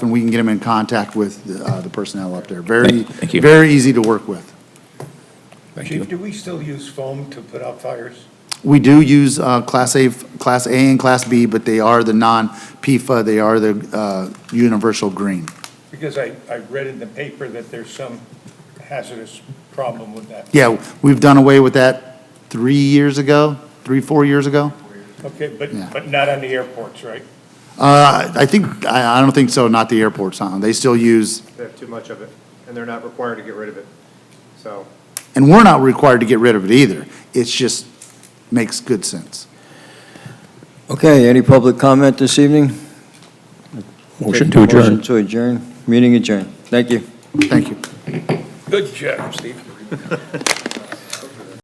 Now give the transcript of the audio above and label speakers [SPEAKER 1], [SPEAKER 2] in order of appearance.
[SPEAKER 1] and we can get them in contact with uh, the personnel up there. Very,
[SPEAKER 2] Thank you.
[SPEAKER 1] very easy to work with.
[SPEAKER 2] Thank you.
[SPEAKER 3] Chief, do we still use foam to put out fires?
[SPEAKER 1] We do use uh, Class A, Class A and Class B, but they are the non-PFA, they are the uh, universal green.
[SPEAKER 3] Because I, I read in the paper that there's some hazardous problem with that.
[SPEAKER 1] Yeah, we've done away with that three years ago, three, four years ago.
[SPEAKER 3] Okay, but,
[SPEAKER 1] Yeah.
[SPEAKER 3] but not on the airports, right?
[SPEAKER 1] Uh, I think, I I don't think so, not the airports, huh? They still use,
[SPEAKER 4] They have too much of it, and they're not required to get rid of it. So,
[SPEAKER 1] and we're not required to get rid of it either. It's just makes good sense.
[SPEAKER 5] Okay, any public comment this evening?
[SPEAKER 2] Motion to adjourn.
[SPEAKER 5] Motion to adjourn, meeting adjourned. Thank you.
[SPEAKER 1] Thank you.
[SPEAKER 3] Good job, Steve.